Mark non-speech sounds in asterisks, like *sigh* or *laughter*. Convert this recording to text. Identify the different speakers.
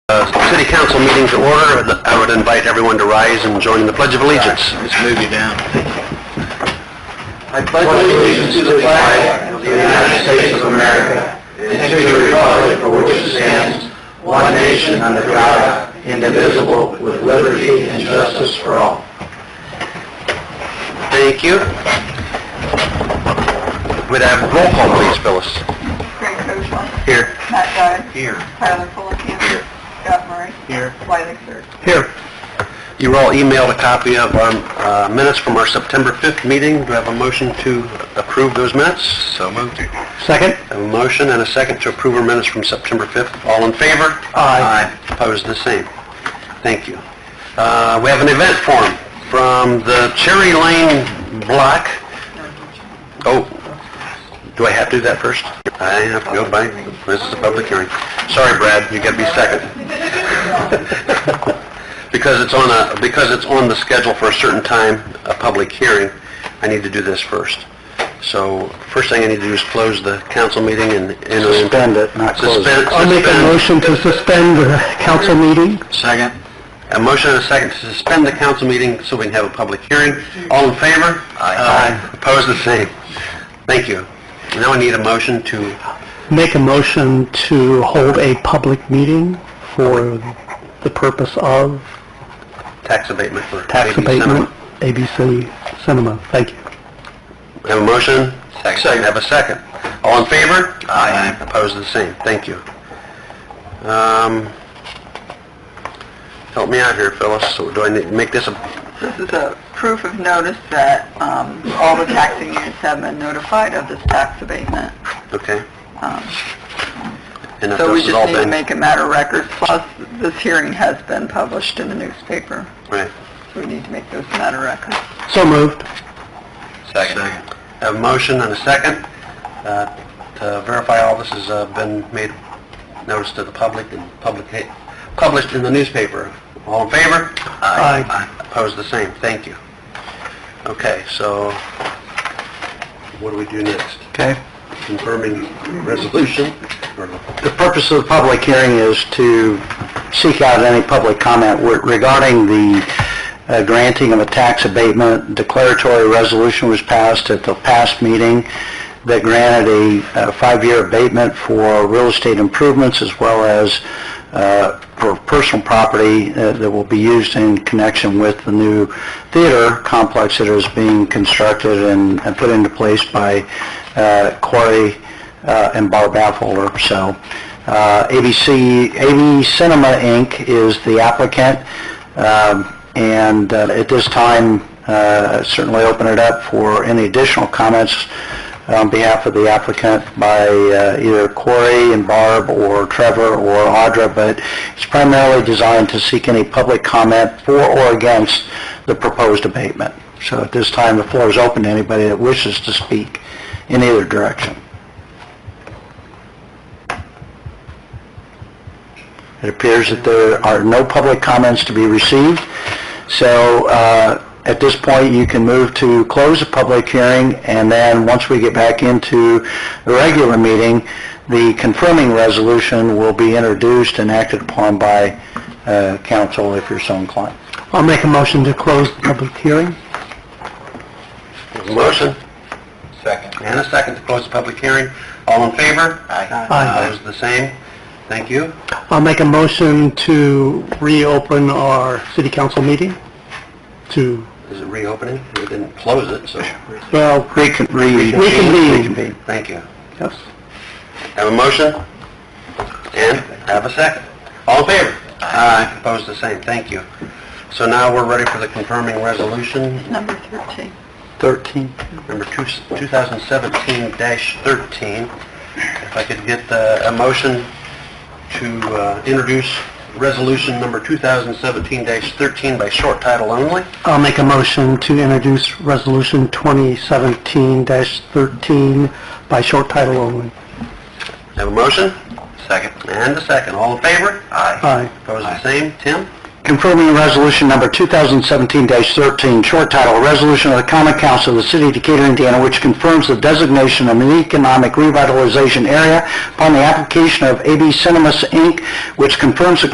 Speaker 1: uh, City Council meeting to order. I would invite everyone to rise and join in the Pledge of Allegiance.
Speaker 2: Let's move you down.
Speaker 1: I pledge allegiance to the flag of the United States of America and to the republic for which it stands, one nation under God, indivisible, with liberty and justice for all. Thank you. Would have roll call, please, Phyllis?
Speaker 3: Craig Koshaw,
Speaker 1: Here.
Speaker 3: Matt Dyer,
Speaker 2: Here.
Speaker 3: Tyler Fulenkamp, Scott Murray,
Speaker 2: Here.
Speaker 3: Wiley Sir.
Speaker 1: Here. You were all emailed a copy of our uh, minutes from our September 5th meeting. Do I have a motion to approve those minutes? So moved. Second. I have a motion and a second to approve our minutes from September 5th. All in favor? Aye. Opposed, the same. Thank you. Uh, We have an event form from the Cherry Lane Block. Oh, do I have to do that first? I have to go by, this is a public hearing. Sorry, Brad, you got to be second *laughs* because it's on a, because it's on the schedule for a certain time, a public hearing, I need to do this first. So, first thing I need to do is close the council meeting and... Suspend it, not close it.
Speaker 4: I'll make a motion to suspend the council meeting.
Speaker 1: Second. A motion and a second to suspend the council meeting so we can have a public hearing. All in favor? Aye. Opposed, the same. Thank you. Now I need a motion to,
Speaker 4: Make a motion to hold a public meeting for the purpose of
Speaker 1: tax abatement for...
Speaker 4: tax
Speaker 1: AB Cinema.
Speaker 4: abatement, ABC Cinema. Thank you.
Speaker 1: Have a motion? Second. Have a second. All in favor? Aye. Opposed, the same. Thank you. Um, help me out here, Phyllis. So do I need to make this a,
Speaker 3: This is a proof of notice that um, all the taxing units have been notified of this tax abatement.
Speaker 1: okay?
Speaker 3: Um,
Speaker 1: And if
Speaker 3: So we
Speaker 1: this has
Speaker 3: just
Speaker 1: all
Speaker 3: need to
Speaker 1: been...
Speaker 3: make a matter of record, plus this hearing has been published in the newspaper,
Speaker 1: Right.
Speaker 3: so we need to make those matter of record.
Speaker 4: So moved.
Speaker 1: Second. Have a motion and a second uh, to verify all this has uh, been made notice to the public and public published in the newspaper. All in favor?
Speaker 4: Aye.
Speaker 1: Opposed, the same. Thank you. Okay, so what do we do next?
Speaker 4: Okay.
Speaker 1: Confirming resolution? or-
Speaker 5: The purpose of the public hearing is to seek out any public comment regarding the uh, granting of a tax abatement. Declaratory resolution was passed at the past meeting that granted a uh, five-year abatement for real estate improvements as well as uh, for personal property uh, that will be used in connection with the new theater complex that is being constructed and and put into place by uh, Quarry uh, and Barb Affolter. So uh, ABC, AV Cinema Inc. is the applicant, Um, and uh, at this time, uh, certainly open it up for any additional comments on behalf of the applicant by uh, either Corey and Barb or Trevor or Audra, but it's primarily designed to seek any public comment for or against the proposed abatement. So at this time, the floor is open to anybody that wishes to speak in either direction. It appears that there are no public comments to be received, so uh, at this point, you can move to close the public hearing, and then, once we get back into the regular meeting, the confirming resolution will be introduced and acted upon by uh, council if you're so inclined.
Speaker 4: I'll make a motion to close the public hearing.
Speaker 1: Motion
Speaker 2: Second.
Speaker 1: and a second to close the public hearing. All in favor? Aye.
Speaker 4: Aye.
Speaker 1: Opposed, the same. Thank you.
Speaker 4: I'll make a motion to reopen our city council meeting to,
Speaker 1: Is it reopening? We didn't close it, so...
Speaker 4: well,
Speaker 5: Recon- re-
Speaker 4: reconvene.
Speaker 1: Thank you.
Speaker 4: Yes.
Speaker 1: Have a motion? And have a second. All in favor? Aye. Opposed, the same. Thank you. So now we're ready for the confirming resolution,
Speaker 3: Number 13.
Speaker 5: 13.
Speaker 1: number two- 2017-13. If I could get uh, a motion to uh, introduce resolution number 2017-13 by short title only.
Speaker 4: I'll make a motion to introduce Resolution 2017-13 by short title only.
Speaker 1: Have a motion? Second. And a second. All in favor?
Speaker 4: Aye.
Speaker 1: Opposed, the same. Tim?
Speaker 5: Confirming Resolution Number 2017-13, short title, "A Resolution of the Common Council of the City of Decatur, Indiana, which confirms the designation of an economic revitalization area upon the application of AB Cinemas, Inc., which confirms the